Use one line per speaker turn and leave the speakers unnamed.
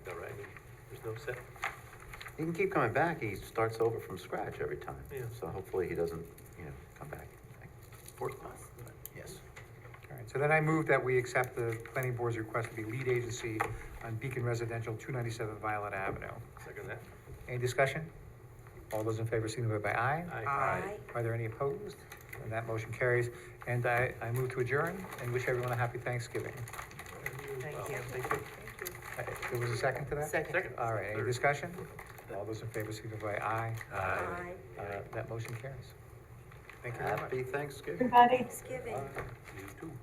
There's no set,
He can keep coming back, he starts over from scratch every time.
Yeah.
So hopefully he doesn't, you know, come back.
fourth time.
Yes.
All right, so then I move that we accept the planning board's request to be lead agency on Beacon Residential, two ninety-seven Violet Avenue.
Second that.
Any discussion? All those in favor signify by aye.
Aye.
Are there any opposed? And that motion carries. And I, I move to adjourn and wish everyone a happy Thanksgiving.
Thank
Well,
you.
Thank you.
Uh, There was a second to that?
Second.
Second.
All right, any
Third.
discussion? All those in favor signify by aye.
Aye.
Uh, That motion carries. Thank you very much.
Happy Thanksgiving.
Everybody.
Thanksgiving.
You too.